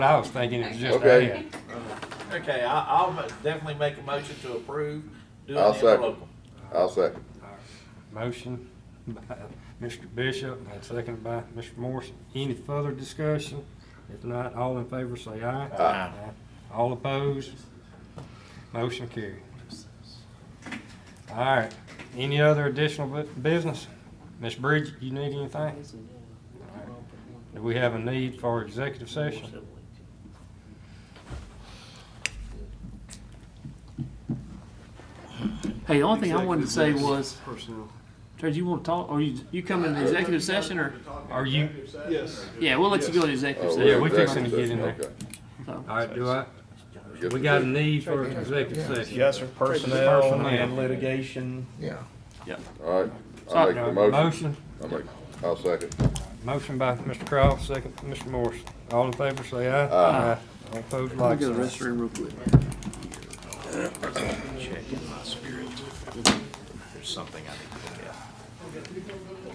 I was thinking it was just Okay. ad. Okay, I, I'll ma- definitely make a motion to approve doing I'll the second. interlocal. I'll second. Motion by Mr. Bishop and second by Mr. Morrison. Any further discussion? If not, all in favor say aye. Aye. All opposed? Motion carried. All right, any other additional bu- business? Ms. Bridget, you need anything? All right. Do we have a need for executive session? Hey, the only thing I wanted to say was, Trey, do you want to talk, or you, you come in the executive session, or, Are you, Yes. yeah, we'll let you go in the Oh, executive Yeah, we session. we're fixing to get in there. executive So, all right, do I, session, okay. we got a need for executive session? Yes, sir. Personnel Personnel. and litigation. All right, I'll Sorry. make the Uh, motion. Motion, I'll make, I'll second. Motion by Mr. Cross, second by Mr. Morrison. All in favor, say aye. Aye. All opposed, let like me go to the sign. restroom real quick. Checking my spirit. There's something I need to look at.